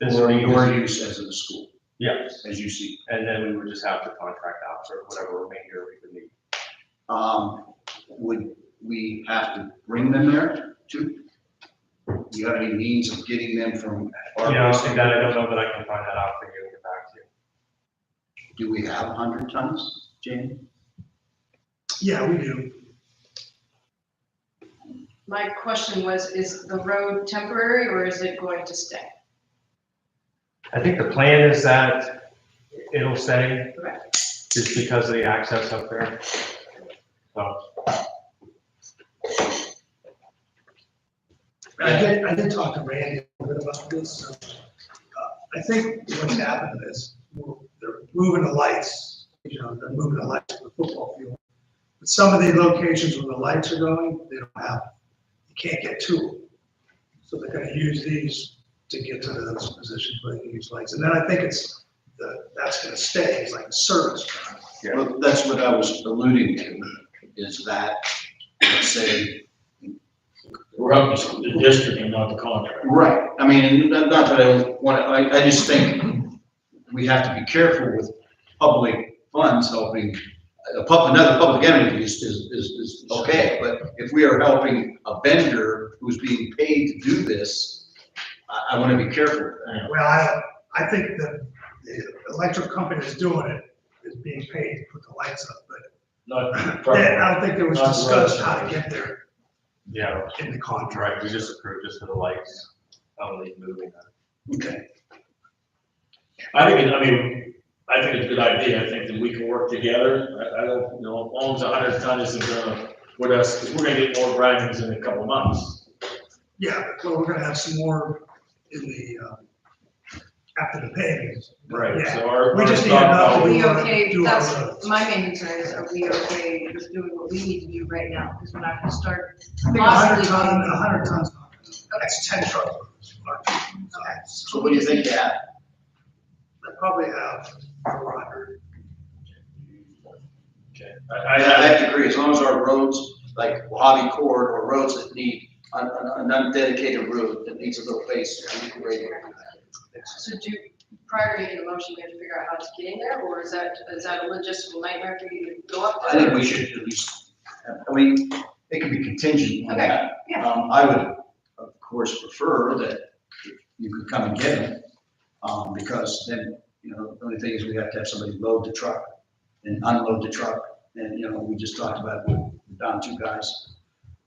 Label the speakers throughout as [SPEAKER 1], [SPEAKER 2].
[SPEAKER 1] This
[SPEAKER 2] Or
[SPEAKER 1] would be
[SPEAKER 2] your
[SPEAKER 1] yours,
[SPEAKER 2] use as in the school,
[SPEAKER 1] yeah,
[SPEAKER 2] as you see.
[SPEAKER 1] and then we would just have to contract out for whatever remainder we would need.
[SPEAKER 2] Um, would we have to bring them there too? Do you have any means of getting them from our
[SPEAKER 1] You know,
[SPEAKER 2] place?
[SPEAKER 1] honestly, that, I don't know that I can find that out for you and get back to you.
[SPEAKER 2] Do we have hundred tons, Jane?
[SPEAKER 3] Yeah, we do.
[SPEAKER 4] My question was, is the road temporary or is it going to stay?
[SPEAKER 1] I think the plan is that it'll stay,
[SPEAKER 4] Correct.
[SPEAKER 1] just because of the access up there. So,
[SPEAKER 3] I did, I did talk to Randy a little bit about this. so, uh, I think what's happened is well, they're moving the lights, you know, they're moving the lights to the football field. But some of the locations where the lights are going, they don't have, them. you can't get to them. So they're gonna use these to get to those positions where they can use lights. And then I think it's, the- that's gonna stay, it's like a service. drive.
[SPEAKER 1] Yeah.
[SPEAKER 2] Well, that's what I was alluding to, is that, let's say,
[SPEAKER 5] We're up to the district and not the contract.
[SPEAKER 2] right, I mean, not not that I want, I, I just think we have to be careful with public funds helping, a pub, another public entity is, is, is, is okay, but if we are helping a vendor who's being paid to do this, I, I wanna be careful with that.
[SPEAKER 3] Well, I, I think that the electric company that's doing it is being paid to put the lights up, but
[SPEAKER 5] Not.
[SPEAKER 3] Yeah, I think it was
[SPEAKER 5] Not
[SPEAKER 3] discussed
[SPEAKER 5] roads.
[SPEAKER 3] how to get there
[SPEAKER 1] yeah,
[SPEAKER 3] in the
[SPEAKER 1] that's
[SPEAKER 3] contract.
[SPEAKER 1] right, we just approved just for the lights, only moving that.
[SPEAKER 2] Okay.
[SPEAKER 5] I think, it- I mean, I think it's a good idea. I think that we can work together. I, I don't, you know, as long as a hundred ton isn't gonna, with us, because we're gonna get more grindings in a couple months.
[SPEAKER 3] Yeah, well, we're gonna have some more in the, uh, after the paving. Yeah,
[SPEAKER 5] So our.
[SPEAKER 3] We just need
[SPEAKER 5] our
[SPEAKER 3] enough to
[SPEAKER 4] Are
[SPEAKER 5] stockpile-
[SPEAKER 4] we
[SPEAKER 3] Do our-
[SPEAKER 4] okay,
[SPEAKER 3] do our
[SPEAKER 4] that's,
[SPEAKER 3] roads.
[SPEAKER 4] my main concern is, are we okay with doing what we need to do right now? Because we're not gonna start,
[SPEAKER 3] I think a hundred
[SPEAKER 4] Possibly.
[SPEAKER 3] ton, a hundred tons, that's ten truckloads. or two tons.
[SPEAKER 2] So what do you think, yeah?
[SPEAKER 3] I Probably have four hundred.
[SPEAKER 5] I,
[SPEAKER 2] I,
[SPEAKER 5] I
[SPEAKER 2] I
[SPEAKER 5] have
[SPEAKER 2] have to agree, as long as our roads, like Wahhabi Court or roads that need an, an, an undedicated road that needs a little space, we can rate it.
[SPEAKER 4] so do, prior to making a motion, we have to figure out how it's getting there? Or is that, is that a logistical nightmare for you to go up
[SPEAKER 2] I think
[SPEAKER 4] there?
[SPEAKER 2] we should at least, I mean, it could be contingent on
[SPEAKER 4] Okay,
[SPEAKER 2] that.
[SPEAKER 4] yeah.
[SPEAKER 2] Um, I would, of course, prefer that you could come and get it, um, because then, you know, the only thing is we have to have somebody load the truck and unload the truck, and, you know, we just talked about, we're down two guys.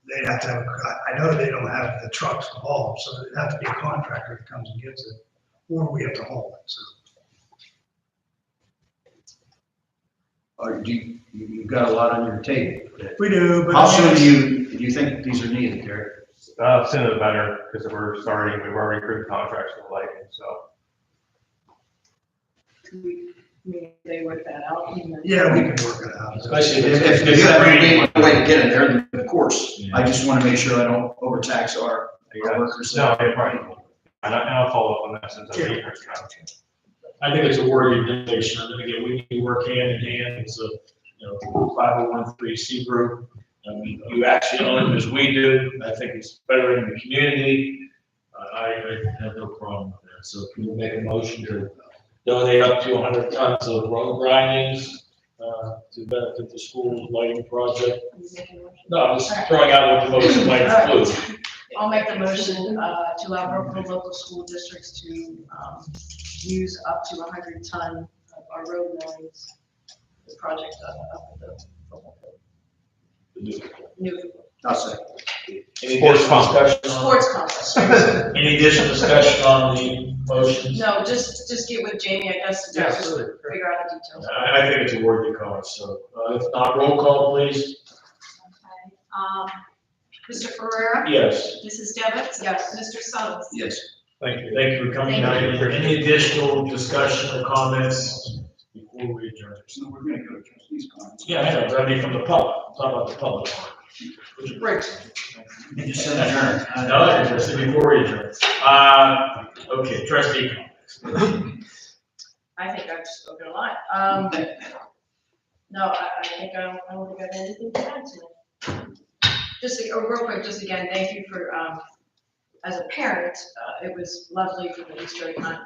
[SPEAKER 3] They'd have to have, I, I know they don't have the trucks to haul, so it'd have to be a contractor that comes and gets it, or we have to haul it, so.
[SPEAKER 2] Or do you, you- you've got a lot on your table.
[SPEAKER 3] We do, but.
[SPEAKER 2] How soon do you, do you think these are needed, Gary?
[SPEAKER 1] Uh, sooner the better, because we're starting, we've already approved contracts for the lighting, so.
[SPEAKER 4] Can we- we- They work that out? and then-
[SPEAKER 3] Yeah, we can work it out.
[SPEAKER 5] Especially
[SPEAKER 2] If, if, if you have a way to get it there, then of course, I just wanna make sure I don't overtax our, our workers.
[SPEAKER 1] No, yeah, right. And I, and I'll follow up on that since I'm here.
[SPEAKER 5] I think it's a worthy donation, and again, we need to work hand in hand, as a, you know, five oh one three C group. I mean, you actually own it as we do, and I think it's better in the community, Uh, I, I have no problem with that, so can we make a motion to donate up to hundred tons of road grindings, uh, to benefit the school lighting project?
[SPEAKER 4] You make a motion?
[SPEAKER 5] No, I'm just throwing out what the motion might include.
[SPEAKER 4] I'll make the motion uh, to allow local, local school districts to um, use up to 100 ton of our road millings. The project up up at the football field, new
[SPEAKER 2] I'll say.
[SPEAKER 5] Any additional discussion on,
[SPEAKER 4] sports complex.
[SPEAKER 5] any additional discussion on the motions?
[SPEAKER 4] No, just, just get with Jamie, I guess, to just figure out the details.
[SPEAKER 5] I, I think it's a worthy cause, so, uh, if not, roll call, please.
[SPEAKER 6] Okay, um, Mr. Ferrera?
[SPEAKER 5] Yes.
[SPEAKER 6] Mrs. Devitt?
[SPEAKER 4] Yes.
[SPEAKER 6] Mr. Summers?
[SPEAKER 2] Yes.
[SPEAKER 1] Thank you.
[SPEAKER 5] Thank you for coming out. Any additional discussion or comments before we adjourn?
[SPEAKER 2] So we're gonna go to trustees' comments.
[SPEAKER 5] Yeah, I know, but I mean, from the public, I'm talking about the public. Which is great.
[SPEAKER 2] You just said adjourn.
[SPEAKER 5] I know, I just said before we adjourn. Uh, okay, trustee
[SPEAKER 4] I think I've spoken a lot. Um, No, I, I think I don't, I don't think I have anything to add to it. Just, uh, real quick, just again, thank you for, um, as a parent, uh, it was lovely for the Easter egg hunt